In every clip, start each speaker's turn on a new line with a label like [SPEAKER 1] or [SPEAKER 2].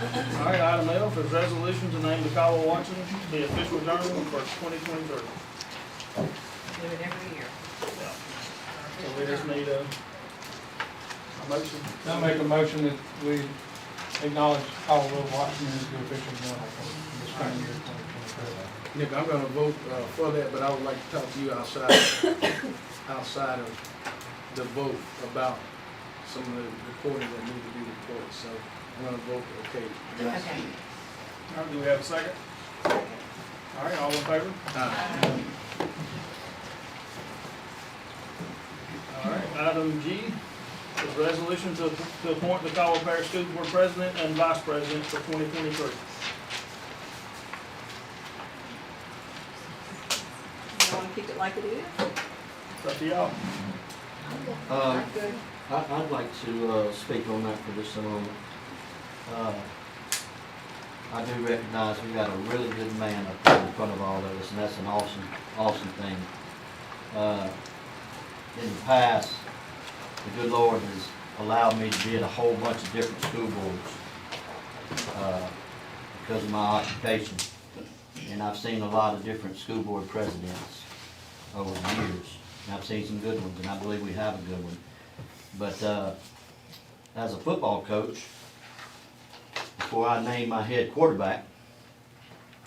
[SPEAKER 1] All right, item F is resolution to name DeKalb Watson the official journal for twenty twenty-three.
[SPEAKER 2] Do it every year.
[SPEAKER 1] So we just need a a motion.
[SPEAKER 3] I make a motion that we acknowledge Colorado Washington as the official journal for this coming year, 2023.
[SPEAKER 4] Nick, I'm gonna vote uh, for that, but I would like to talk to you outside, outside of the vote about some of the recordings that need to be recorded, so I'm gonna vote, okay. yes.
[SPEAKER 2] Okay.
[SPEAKER 1] All right, do we have a second? All right, all in favor?
[SPEAKER 4] Aye.
[SPEAKER 1] All right, item G is resolution to, to appoint the Caldwell Parish School Board President and Vice President for twenty twenty-three.
[SPEAKER 2] You wanna keep it like it is?
[SPEAKER 1] It's up to y'all.
[SPEAKER 5] Uh,
[SPEAKER 2] I'm good.
[SPEAKER 5] I, I'd like to, uh, speak on that for just a moment. Uh, I do recognize we got a really good man up there in front of all of us, and that's an awesome, awesome thing. Uh, in the past, the good Lord has allowed me to be at a whole bunch of different school boards, uh, because of my occupation. And I've seen a lot of different school board presidents over the years. And I've seen some good ones, and I believe we have a good one. But uh, as a football coach, before I name my head quarterback,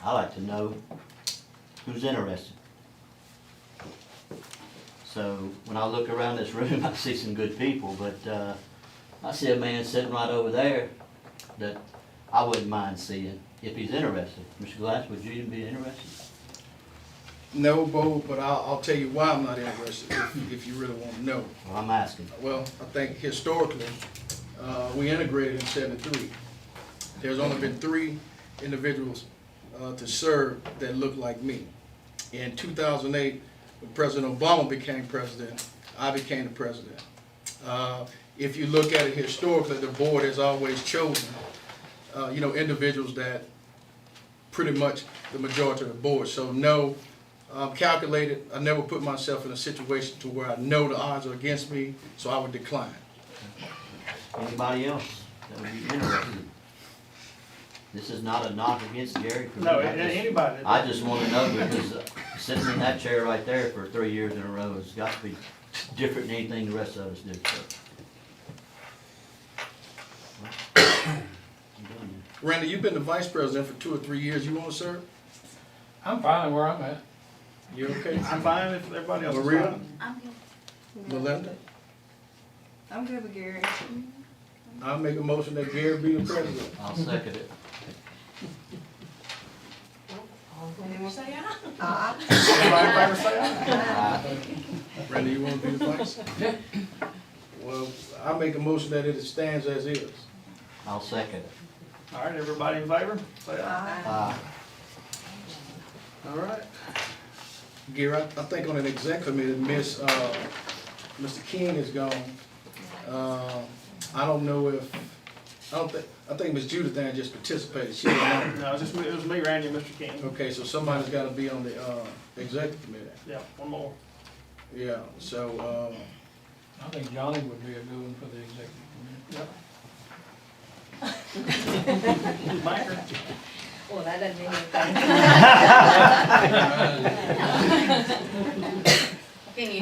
[SPEAKER 5] I like to know who's interested. So when I look around this room, I see some good people, but uh, I see a man sitting right over there that I wouldn't mind seeing if he's interested. Mr. Glass, would you be interested?
[SPEAKER 4] No vote, but I'll, I'll tell you why I'm not interested, if, if you really wanna know.
[SPEAKER 5] Well, I'm asking.
[SPEAKER 4] Well, I think historically, uh, we integrated in seventy-three. There's only been three individuals uh, to serve that look like me. In two thousand eight, when President Obama became president, I became the president. Uh, If you look at it historically, the board has always chosen, uh, you know, individuals that pretty much the majority of the board. So no, I'm calculated, I never put myself in a situation to where I know the odds are against me, so I would decline.
[SPEAKER 5] Anybody else that would be interested? This is not a knock against Gary. for me.
[SPEAKER 1] No, a-
[SPEAKER 5] I just-
[SPEAKER 1] anybody.
[SPEAKER 5] I just wanna know because uh, sitting in that chair right there for three years in a row has got to be different than anything the rest of us do, so. I'm done
[SPEAKER 4] Randy, you've been the vice president for two or three years, you wanna serve?
[SPEAKER 3] I'm fine where I'm at.
[SPEAKER 4] You okay?
[SPEAKER 1] I'm fine if everybody else is
[SPEAKER 4] Maria?
[SPEAKER 1] fine.
[SPEAKER 6] I'm good.
[SPEAKER 4] Melinda,
[SPEAKER 2] I'm good with Gary.
[SPEAKER 4] I'll make a motion that Gary be the president.
[SPEAKER 5] now. I'll second it.
[SPEAKER 2] And then we'll
[SPEAKER 6] Say aye.
[SPEAKER 2] Aye.
[SPEAKER 4] Everybody in favor say aye.
[SPEAKER 5] I-
[SPEAKER 4] Randy, you wanna be the vice? Well, I make a motion that it stands as is.
[SPEAKER 5] I'll second it.
[SPEAKER 1] All right, everybody in favor? Say aye.
[SPEAKER 2] "Ah."
[SPEAKER 5] Uh,
[SPEAKER 1] All right.
[SPEAKER 4] Gary, I, I think on an exec committee, Miss, uh, Mr. King is gone. Uh, I don't know if, I don't think, I think Miss Judith Ann just participated, she didn't know.
[SPEAKER 1] No, it's just, me- it was me, Randy, and Mr. King.
[SPEAKER 4] Okay, so somebody's gotta be on the, uh, executive committee,
[SPEAKER 1] Yeah, one more.
[SPEAKER 4] yeah, so, um,
[SPEAKER 3] I think Johnny would be a good one for the executive committee.
[SPEAKER 1] Banker.
[SPEAKER 6] Well, that doesn't mean anything.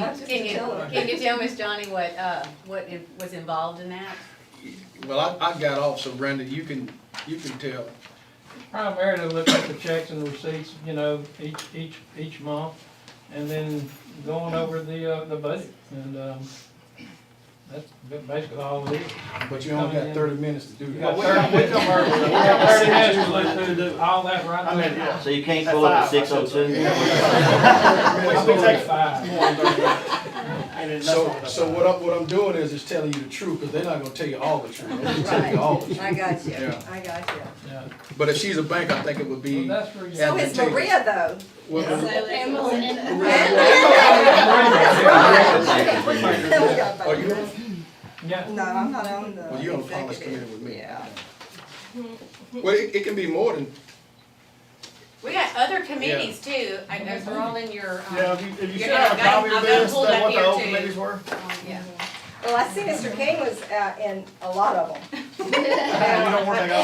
[SPEAKER 4] um,
[SPEAKER 6] Can you,
[SPEAKER 2] I was just
[SPEAKER 6] can you,
[SPEAKER 2] gonna tell her.
[SPEAKER 6] can you tell Miss Johnny what, uh, what in- was involved in that?
[SPEAKER 4] well, I, I got off, so Brenda, you can, you can tell.
[SPEAKER 3] Primarily look at the checks and receipts, you know, each, each, each month, and then going over the, uh, the budget. And, um, that's basically all it is.
[SPEAKER 4] But you only got thirty minutes to do
[SPEAKER 3] We
[SPEAKER 4] that.
[SPEAKER 3] got thirty minutes, we got thirty minutes to look through the- all that right
[SPEAKER 1] I
[SPEAKER 3] there.
[SPEAKER 1] mean, yeah.
[SPEAKER 5] So you can't pull up a
[SPEAKER 1] At
[SPEAKER 5] six oh
[SPEAKER 1] five,
[SPEAKER 5] two?
[SPEAKER 3] It's
[SPEAKER 1] I'll be
[SPEAKER 3] only
[SPEAKER 1] taking-
[SPEAKER 3] five.
[SPEAKER 1] And then that's
[SPEAKER 4] So,
[SPEAKER 1] all.
[SPEAKER 4] so what I'm, what I'm doing is, is telling you the truth, cause they're not gonna tell you all the truth, they're gonna tell you all the truth.
[SPEAKER 2] I got you,
[SPEAKER 4] Oh. Yeah.
[SPEAKER 2] I got you.
[SPEAKER 3] Yeah.
[SPEAKER 4] But if she's a bank, I think it
[SPEAKER 3] Well,
[SPEAKER 4] would be.
[SPEAKER 3] that's where you.
[SPEAKER 4] Yeah,
[SPEAKER 2] So
[SPEAKER 4] the
[SPEAKER 2] is
[SPEAKER 4] table.
[SPEAKER 2] Maria though.
[SPEAKER 4] well, Are you,
[SPEAKER 3] Yeah,
[SPEAKER 2] No, I'm not on the.
[SPEAKER 4] well, you're on the policy
[SPEAKER 2] executive.
[SPEAKER 4] committee with me.
[SPEAKER 2] Yeah.
[SPEAKER 4] Well, it, it can be more than,
[SPEAKER 6] We got other committees too, and those are all in your,
[SPEAKER 1] Yeah,
[SPEAKER 6] um,
[SPEAKER 1] if you, if you
[SPEAKER 6] You're
[SPEAKER 1] should have a
[SPEAKER 6] gonna-
[SPEAKER 1] copy of
[SPEAKER 6] I've got
[SPEAKER 1] this,
[SPEAKER 6] pulled
[SPEAKER 1] that
[SPEAKER 6] up
[SPEAKER 1] what the
[SPEAKER 6] here
[SPEAKER 1] old
[SPEAKER 6] too.
[SPEAKER 1] committees were.
[SPEAKER 6] yeah.
[SPEAKER 2] Well, I see Mr. King was uh, in a lot of them.
[SPEAKER 1] You don't want to take